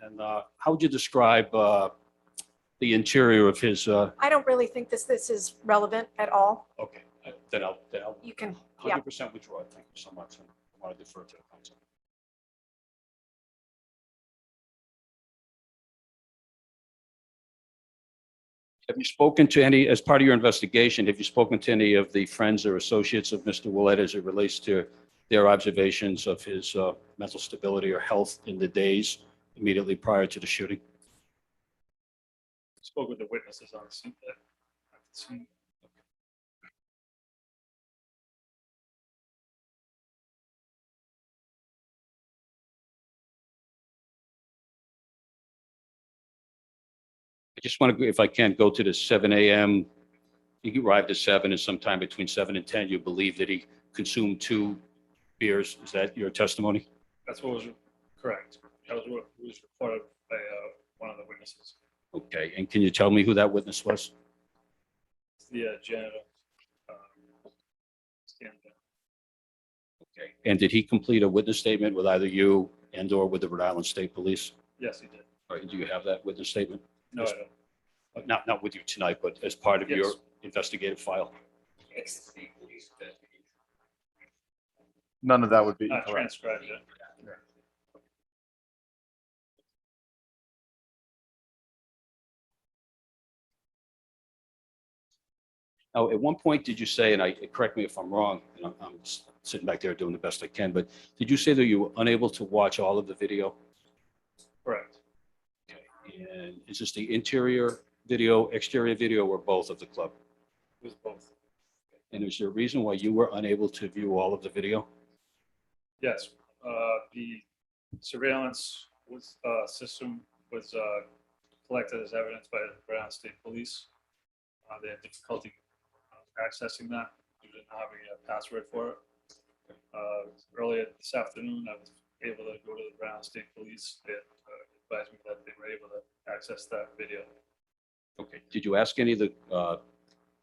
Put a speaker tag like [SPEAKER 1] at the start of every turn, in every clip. [SPEAKER 1] And uh, how would you describe uh, the interior of his, uh,
[SPEAKER 2] I don't really think this, this is relevant at all.
[SPEAKER 1] okay, uh, then I'll, then I'll
[SPEAKER 2] You can, yeah.
[SPEAKER 1] 100% withdraw. it. Thank you so much. I want to defer to the council. Have you spoken to any, as part of your investigation, have you spoken to any of the friends or associates of Mr. Willett as it relates to their observations of his uh, mental stability or health in the days immediately prior to the shooting?
[SPEAKER 3] spoke with the witnesses on uh, the scene. that I've seen.
[SPEAKER 1] I just want to, if I can, go to the seven AM. He arrived at seven and sometime between seven and ten, you believe that he consumed two beers. Is that your testimony?
[SPEAKER 3] That's what was correct. That was what was reported by uh, one of the witnesses,
[SPEAKER 1] Okay, and can you tell me who that witness was?
[SPEAKER 3] It's the uh, janitor. um, Stan.
[SPEAKER 1] Okay. And did he complete a witness statement with either you and or with the Rhode Island State Police?
[SPEAKER 3] Yes, he did.
[SPEAKER 1] Or do you have that witness statement? Uh,
[SPEAKER 3] No, I don't.
[SPEAKER 1] Not, not with you tonight, but as part of your
[SPEAKER 3] Yes.
[SPEAKER 1] investigative file?
[SPEAKER 4] None of that would be
[SPEAKER 3] I
[SPEAKER 4] correct.
[SPEAKER 3] transcribed it.
[SPEAKER 1] Now, at one point, did you say, and I, correct me if I'm wrong, and I'm, I'm s- sitting back there doing the best I can, but did you say that you were unable to watch all of the video?
[SPEAKER 3] Correct.
[SPEAKER 1] And is this the interior video, exterior video, or both of the club?
[SPEAKER 3] It was both.
[SPEAKER 1] And is there a reason why you were unable to view all of the video?
[SPEAKER 3] Yes, uh, the surveillance was, uh, system was, uh, collected as evidence by the Brown State Police. Uh, they had difficulty uh, accessing that due to not having a password for it. Uh, earlier this afternoon, I was able to go to the Brown State Police. They uh, advised me that they were able to access that video.
[SPEAKER 1] Okay. Did you ask any of the uh,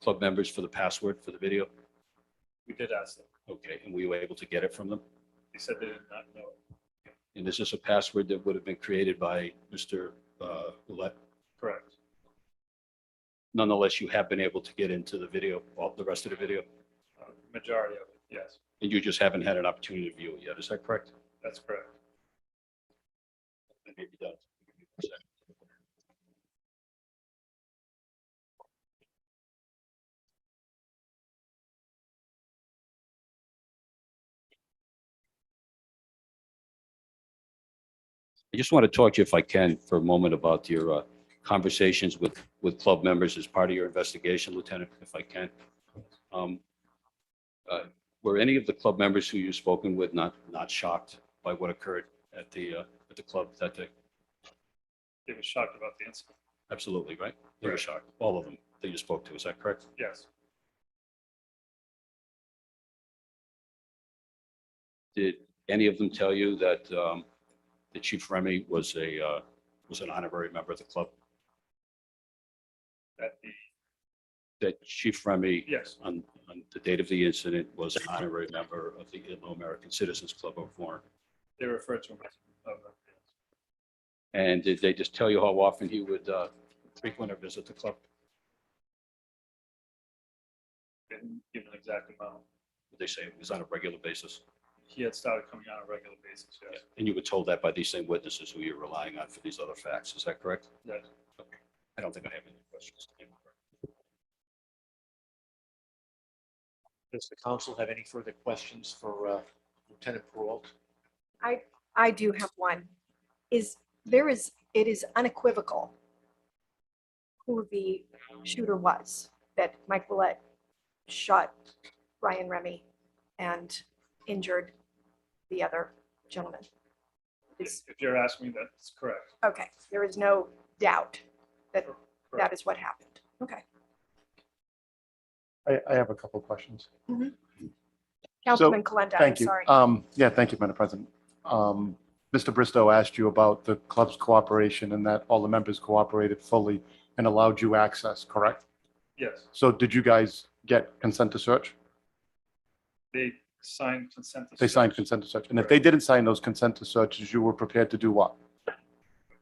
[SPEAKER 1] club members for the password for the video?
[SPEAKER 3] We did ask them.
[SPEAKER 1] Okay, and were you able to get it from them?
[SPEAKER 3] They said they did not know.
[SPEAKER 1] And is this a password that would have been created by Mr. uh, Ouellette?
[SPEAKER 3] Correct.
[SPEAKER 1] Nonetheless, you have been able to get into the video, all the rest of the video,
[SPEAKER 3] Uh, Majority of it, yes,
[SPEAKER 1] and you just haven't had an opportunity to view it yet. Is that correct?
[SPEAKER 3] that's correct.
[SPEAKER 1] That may be done. I just want to talk to you, if I can, for a moment about your uh, conversations with, with club members as part of your investigation, Lieutenant, if I can. Um, uh, Were any of the club members who you've spoken with not, not shocked by what occurred at the, uh, at the club that day?
[SPEAKER 3] They were shocked about the incident.
[SPEAKER 1] Absolutely, right? They were
[SPEAKER 3] Correct.
[SPEAKER 1] shocked, all of them that you spoke to, is that correct?
[SPEAKER 3] Yes,
[SPEAKER 1] Did any of them tell you that, um, that Chief Remy was a, uh, was an honorary member of the club?
[SPEAKER 3] that the,
[SPEAKER 1] That Chief Remy,
[SPEAKER 3] yes.
[SPEAKER 1] on, on the date of the incident, was an honorary member of the Ilo American Citizens Club of Warren?
[SPEAKER 3] They refer to him as. uh,
[SPEAKER 1] And did they just tell you how often he would, uh, frequent or visit the club?
[SPEAKER 3] Didn't give an exact amount.
[SPEAKER 1] Did they say it was on a regular basis?
[SPEAKER 3] He had started coming on a regular basis, yes.
[SPEAKER 1] And you were told that by these same witnesses who you're relying on for these other facts, is that correct?
[SPEAKER 3] Yes.
[SPEAKER 1] Okay. I don't think I have any questions.
[SPEAKER 5] Does the council have any further questions for uh, Lieutenant Peralta?
[SPEAKER 2] I do have one. Is, there is, it is unequivocal who the shooter was, that Mike Willett shot Ryan Remy and injured the other gentleman.
[SPEAKER 3] If if you're asking me, that's correct.
[SPEAKER 2] Okay, there is no doubt that that
[SPEAKER 3] Correct.
[SPEAKER 2] is what happened. Okay.
[SPEAKER 4] I, I have a couple of questions.
[SPEAKER 2] Councilman Kalenda, I'm
[SPEAKER 4] Thank you.
[SPEAKER 2] sorry.
[SPEAKER 4] Um, yeah, thank you, Madam President. Um, Mr. Bristow asked you about the club's cooperation and that all the members cooperated fully and allowed you access, correct?
[SPEAKER 3] Yes,
[SPEAKER 4] So did you guys get consent to search?
[SPEAKER 3] they signed consent. to
[SPEAKER 4] They signed
[SPEAKER 3] search.
[SPEAKER 4] consent to search. And if they didn't sign those consent to searches, you were prepared to do what?